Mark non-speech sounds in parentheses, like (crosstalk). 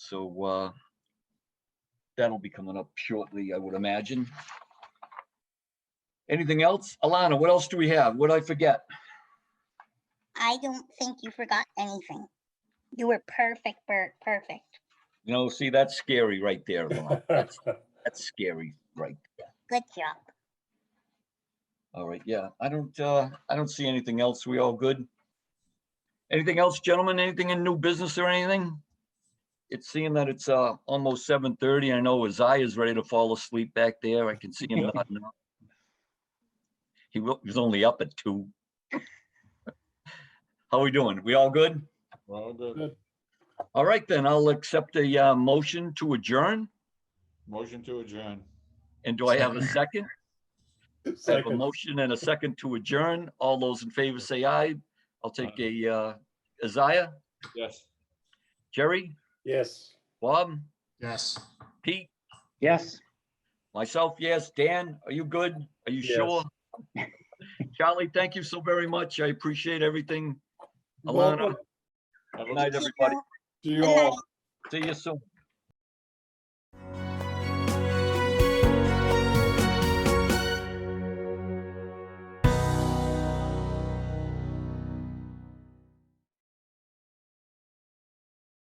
so uh, that'll be coming up shortly, I would imagine. Anything else? Alana, what else do we have? What did I forget? I don't think you forgot anything. You were perfect, Bert, perfect. You know, see, that's scary right there. Alana. That's that's scary, right? Good job. All right, yeah, I don't, uh, I don't see anything else. We all good? Anything else, gentlemen? Anything in new business or anything? It's seeing that it's, uh, almost seven thirty. I know Isaiah's ready to fall asleep back there. I can see him. nodding off. He wa- he was only up at two. (laughs) How we doing? We all good? Well, good. Good. All right, then I'll accept a, uh, motion to adjourn. Motion to adjourn. And do I have a second? I have a Second. motion and a second to adjourn. All those in favor say aye. I'll take a, uh, Isaiah, Yes. Jerry, Yes. Bob, Yes. Pete, Yes. myself, yes. Dan, are you good? Are you Yes. sure? Charlie, thank you so very much. I appreciate everything. Alana, Welcome. Have a Night, good- everybody. See you Good night. all. see you soon.